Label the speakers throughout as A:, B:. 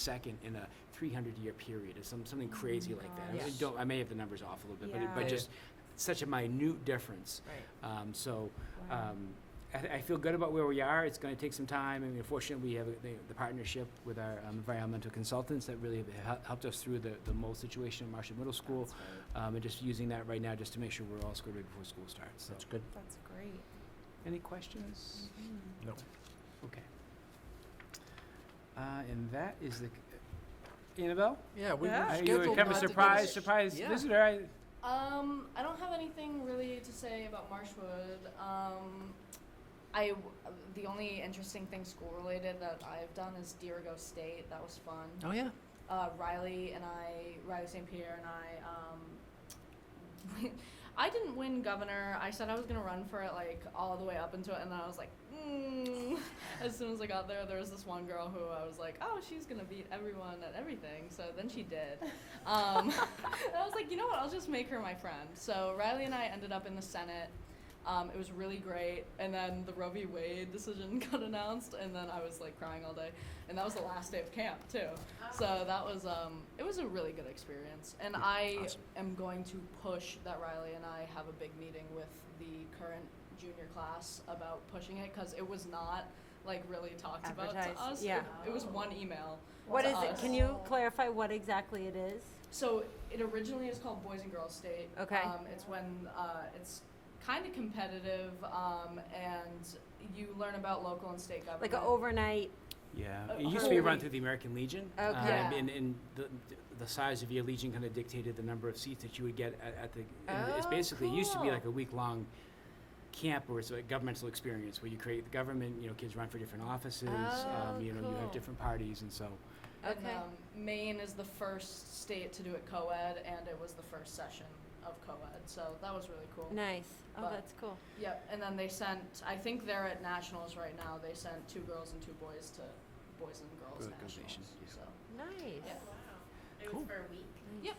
A: second in a 300-year period, or some, something crazy like that. I really
B: gosh.
A: don't, I may have the numbers off a little bit, but, it-
B: Yeah.
A: but
B: Yeah.
A: just such a minute difference.
B: Right.
A: Um, so,
B: Wow.
A: um, I, I feel good about where we are. It's gonna take some time. I mean, fortunately, we have the, the partnership with our um, environmental consultants that really have hel- helped us through the, the mold situation at Marshall Middle School.
B: That's great.
A: Um, and just using that right now, just to make sure we're all squared away before school starts, so.
C: That's good.
B: That's great.
A: Any questions?
D: Mm-hmm.
B: Mhm.
C: No.
A: Mm-hmm. Okay. Uh, and that is the, Annabelle?
C: Yeah, we
B: Yeah.
C: were
A: Uh,
C: scheduled
A: You were kind of a
C: not to go to
A: surprise,
C: sh-
A: surprise
C: Yeah.
A: visitor. I,
D: Um, I don't have anything really to say about Marshwood. Um, I w- the only interesting thing school related that I've done is Deergo State. That was fun.
C: Oh, yeah.
D: Uh, Riley and I, Riley St. Pierre and I. Um, I didn't win governor. I said I was gonna run for it like all the way up into it, and then I was like, mm. as soon as I got there, there was this one girl who I was like, oh, she's gonna beat everyone at everything. So then she did. Um, and I was like, you know what? I'll just make her my friend. So Riley and I ended up in the Senate. Um, it was really great. And then the Roe v. Wade decision got announced, and then I was like crying all day. And that was the last day of camp too. So that was um, it was a really good experience. And I
C: awesome.
D: am going to push that Riley and I have a big meeting with the current junior class about pushing it because it was not like really talked about to
B: Advertised,
D: us. It-
E: yeah.
D: it was one email.
E: What
D: to
E: is it?
D: us.
E: Can you clarify what exactly it is?
D: So it originally is called Boys and Girls State.
E: Okay.
D: Um, it's when uh, it's kind of competitive, um, and you learn about local and state government.
E: Like an overnight,
A: yeah,
D: Uh,
A: it used to be run
D: Holy-
A: through the American Legion.
E: Okay.
A: um,
D: Yeah.
A: And, and the, the size of your legion kind of dictated the number of seats that you would get at, at the, and it's
B: Oh,
A: basically, it used to be
B: cool.
A: like a week-long camp where it's a governmental experience, where you create the government, you know, kids run for different offices.
B: Oh,
A: um, You know, you
B: cool.
A: have different parties, and so,
D: And,
B: Okay.
D: um, Maine is the first state to do it co-ed, and it was the first session of co-ed, so that was really cool.
E: nice. Oh,
D: But-
E: that's cool.
D: Yep. And then they sent. I think they're at nationals right now. They sent two girls and two boys to boys and girls
A: Good
D: nationals.
A: combination, yeah.
D: So
E: Nice.
D: Yeah.
F: Oh, It
C: Cool.
F: was for a week.
D: Yep.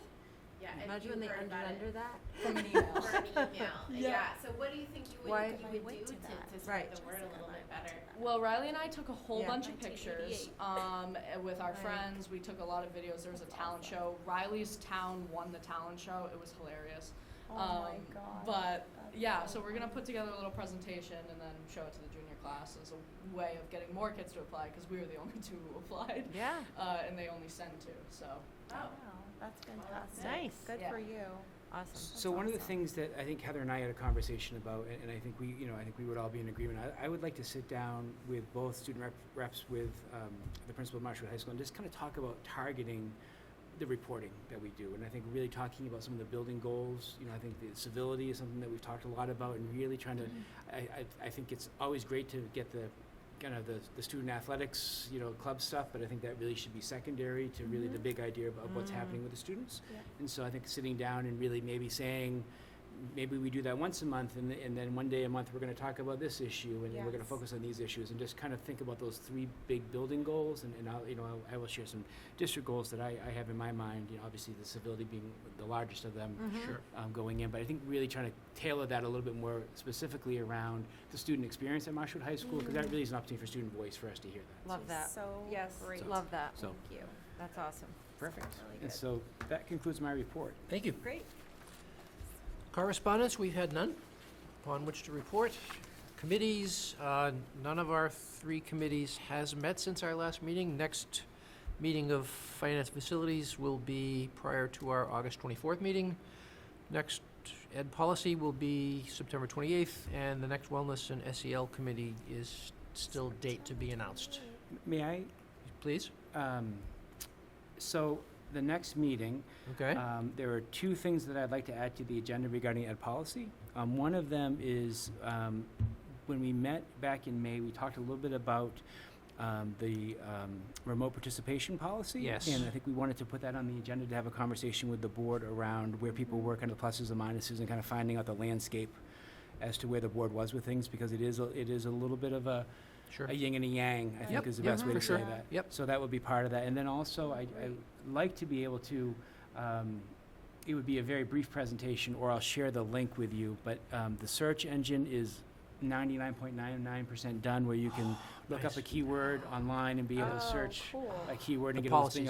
F: Yeah, and
E: Imagine
F: you
E: when they
F: heard
E: ended
F: about
E: under
F: it
E: that.
D: from an email.
F: for an email.
D: Yeah.
F: yeah. So what do you think you would,
B: Why-
F: you would do to, to spread
B: Right.
F: the word a little bit better?
D: Well, Riley and I took a whole
B: Yeah.
D: bunch of pictures um, eh, with our friends. We took a lot of videos. There was a talent show. Riley's town won the talent show. It was hilarious.
B: Oh
D: um,
B: my god.
D: But
B: That's
D: yeah,
B: so
D: so we're gonna
B: funny.
D: put together a little presentation and then show it to the junior class as a way of getting more kids to apply because we were the only two who applied,
C: Yeah.
D: uh, and they only send two. So
F: Oh,
B: Wow, that's fantastic.
E: Nice.
B: Good
D: Yeah.
B: for you.
E: Awesome.
A: So one of the
B: awesome.
A: things that I think Heather and I had a conversation about, and, and I think we, you know, I think we would all be in agreement. I, I would like to sit down with both student rep, reps, with um, the principal of Marshwood High School, and just kind of talk about targeting the reporting that we do. And I think really talking about some of the building goals. You know, I think the civility is something that we've talked a lot about, and really trying to. I, I, I think it's always great to get the kind of the, the student athletics, you know, club stuff, but I think that really should be secondary to really the
B: Mhm.
A: big idea of, of what's
C: Mm.
A: happening with the students.
B: Yeah.
A: And so I think sitting down and really maybe saying, maybe we do that once a month, and, and then one day a month, we're gonna talk about this issue, and then we're gonna
B: Yes.
A: focus on these issues, and just kind of think about those three big building goals, and, and I'll, you know, I'll- I will share some district goals that I, I have in my mind, you know, obviously the civility being the largest of them,
B: Mm-hmm.
C: Sure.
A: um, going in, but I think really trying to tailor that a little bit more specifically around the student experience at Marshwood High School, because that
B: Mm-hmm.
A: really is an opportunity for student voice for us to hear that.
E: Love that.
B: So
E: Yes,
B: great.
E: love that.
A: So,
B: Thank you.
E: That's awesome.
A: perfect.
B: Really
A: And
B: good.
A: so that concludes my report.
C: Thank you.
E: Great.
C: Correspondence, we've had none upon which to report. Committees, uh, none of our three committees has met since our last meeting. Next meeting of Finance Facilities will be prior to our August 24th meeting. Next Ed Policy will be September 28th, and the next Wellness and SEL Committee is still date to be announced.
A: M- May I
C: Please,
A: Um, So, the next meeting,
C: okay?
A: um, there are two things that I'd like to add to the agenda regarding ed policy. Um, One of them is, um, when we met back in May, we talked a little bit about um, the um, remote participation policy.
C: Yes.
A: And I think we wanted to put that on the agenda to have a conversation with the board around where people
C: Mm-hmm.
A: work and the pluses and minuses and kind of finding out the landscape as to where the board was with things, because it is, a- it is a little bit of a
C: Sure.
A: a yin and a yang, I think
C: Yep,
A: is the
C: yep,
A: best way
C: for
A: to
C: sure.
A: say that.
C: Yep.
A: So that would be part of that. And then also, I, I
B: Great.
A: like to be able to, um, it would be a very brief presentation, or I'll share the link with you, but, um, the search engine is ninety-nine point nine nine percent done, where you can look up
C: Nice.
A: a keyword online and be able to
E: Oh,
A: search
E: cool.
A: a keyword and
C: The
A: get a listing
C: policies.